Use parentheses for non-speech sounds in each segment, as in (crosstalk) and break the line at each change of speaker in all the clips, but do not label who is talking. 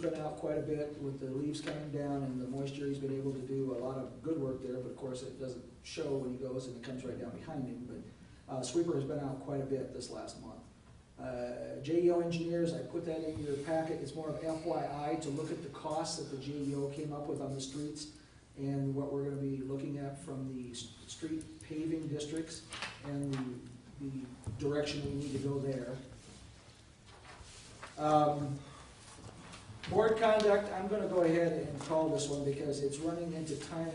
been out quite a bit with the leaves coming down and the moisture. He's been able to do a lot of good work there, but of course it doesn't show when he goes and it comes right down behind him. But uh, sweeper has been out quite a bit this last month. Uh, JEO engineers, I put that in your packet. It's more of FYI to look at the costs that the JEO came up with on the streets and what we're going to be looking at from the s- street paving districts and the, the direction we need to go there. Um, Board conduct, I'm gonna go ahead and call this one because it's running into time,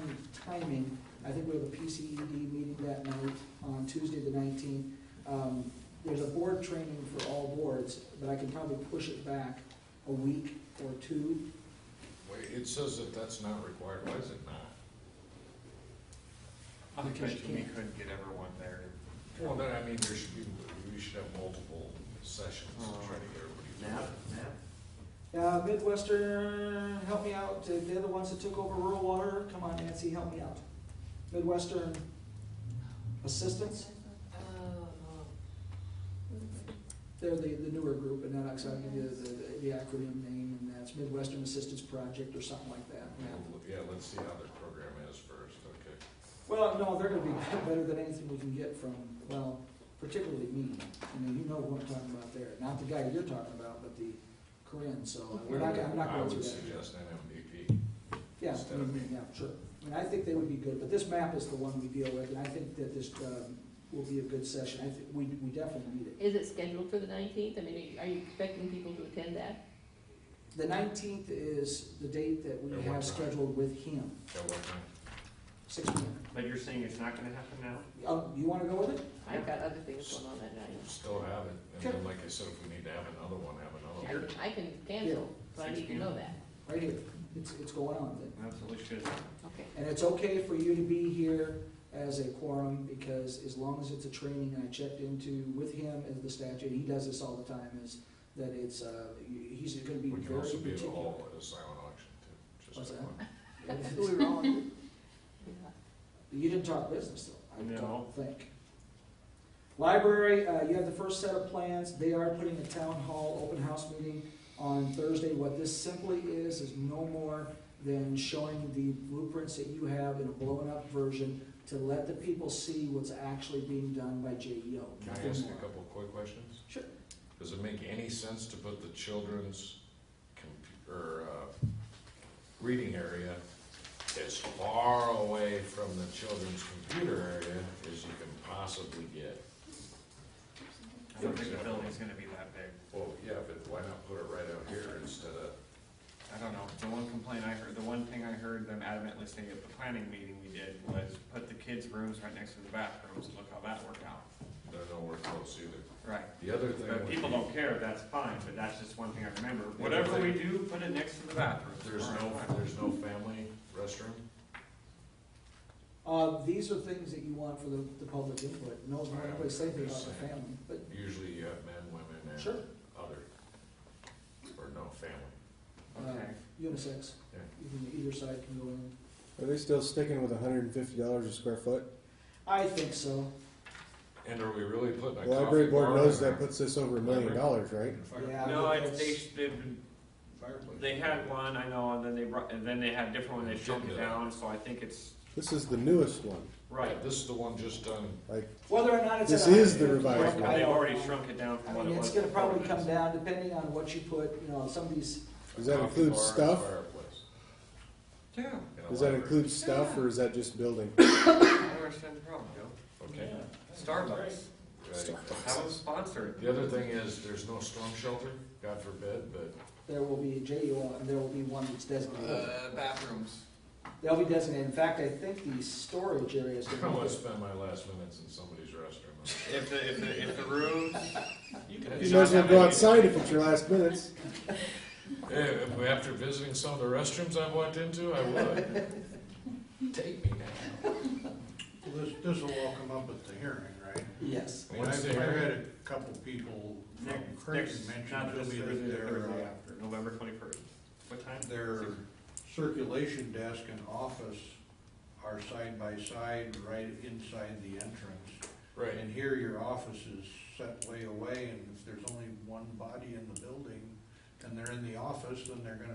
timing. I think we have a PCED meeting that night on Tuesday the nineteenth. Um, there's a board training for all boards, but I can probably push it back a week or two.
Wait, it says that that's not required, why is it not?
I
Because
bet
you
you we
can't.
couldn't get everyone there.
Well, then, I mean, there should be, we should have multiple sessions to try to get everybody.
Uh, Midwestern, help me out, Uh, they're the ones that took over rural water, come on Nancy, help me out. Midwestern Assistance, they're the, the newer group, and that, I'll give you the, the- the acronym name, and that's Midwestern Assistance Project or something like that.
Yeah, let's see how their program is first, okay.
Well, no, they're gonna be better than anything we can get from, well, particularly me. I mean, you know who I'm talking about there, not the guy you're talking about, but the Corinne, so uh, we're not, I'm not
I
going through
would
that.
suggest an
Yeah, I
instead of me.
mean, yeah, sure. And I think they would be good, but this map is the one we deal with, and I think that this, um, will be a good session. I think, we, we definitely need it.
Is it scheduled for the nineteenth? I mean, are you- are you expecting people to attend that?
The nineteenth is the date that we
At what
have
time?
scheduled with him,
MVP, at what time?
six P M.
But you're saying it's not gonna happen now?
Oh, you wanna go with it?
I've got other things going on that night.
Still have it, and then, like I said, if we need to have another one, have
I
another one.
can, I can cancel, but I need to know that.
Right here. It's, it's going on then.
Absolutely should.
Okay.
And it's okay for you to be here as a quorum, because as long as it's a training, and I checked into with him as the statute, he does this all the time, is that it's, uh, he's gonna be
We can
very
also be at a
particular.
hall at a silent auction too, just
What's
like
that?
one.
That's who (laughs) we were all with.
You didn't talk business though, I
No.
don't think. Library, uh, you have the first set of plans, they are putting a town hall open house meeting on Thursday. What this simply is, is no more than showing the blueprints that you have in a blown up version to let the people see what's actually being done by JEO.
Can I
nothing
ask
more.
a couple of quick questions?
Sure.
Does it make any sense to put the children's compu- or, uh, reading area as far away from the children's computer area as you can possibly get?
I don't think the building's gonna be that big.
Well, yeah, but why not put it right out here instead of,
I don't know. The one complaint I heard, the one thing I heard them adamantly say at the planning meeting we did was put the kids' rooms right next to the bathrooms. Look how that worked out.
they're nowhere close either.
Right.
The other thing
But
would
people
be,
don't care, that's fine, but that's just one thing I remember. Whatever we do, put it next to the bathrooms.
there's no, there's no family restroom?
Uh, these are things that you want for the, the public input, no, no
Alright,
place safe about
just
the
saying.
family, but
Usually you have men, women, and
Sure.
other, or no family.
Okay.
uh, unisex,
Yeah.
You can- either side can go in.
Are they still sticking with hundred and fifty dollars a square foot?
I think so,
And are we really putting a
The
coffee bar?
library board knows
in
that
our-
puts this over a million dollars, right?
yeah.
No, I,
that's-
they, sh- they've
Fireplace.
They had one, I know, and then they brought, and then they had a different one, they shrunk it down, so I think it's,
This is the newest one.
right.
This is the one just done,
Like,
Whether or not it's.
This
at
is the
150,
revised
I
They've
don't
already
know.
shrunk it down
I
from what it
mean,
was.
it's gonna
before,
probably
but
come
it's-
down, depending on what you put, you know, somebody's,
Does that
coffee
include
bar and
stuff?
fireplace
Yeah,
in a
does that
library.
include stuff or is that just building?
I don't understand the problem, Joe.
Okay.
Starbucks,
Right.
have them sponsor it.
The other thing is, there's no storm shelter, God forbid, but (laughs)
there will be a JUL, and there will be one that's designated.
Uh, bathrooms.
They'll be designated, in fact, I think the storage area is
I
gonna be.
wanna spend my last minutes in somebody's restroom.
If the, if the, if the rooms.
You
You
You might as well go outside if it's your last minutes.
Eh, if- After visiting some of the restrooms I've walked into, I would. Take me now.
Well, This, this will all come up at the hearing, right?
Yes.
I mean,
What's
I've,
the
I've
hearing?
had a couple people from
Next,
Creighton
next,
mention
not
to
this
me
Thursday, the
that
Thursday
their, uh,
after, November twenty-first. What time?
their circulation desk and office are side by side, right inside the entrance.
Right,
And here your office is set way away, and if there's only one body in the building, and they're in the office, then they're gonna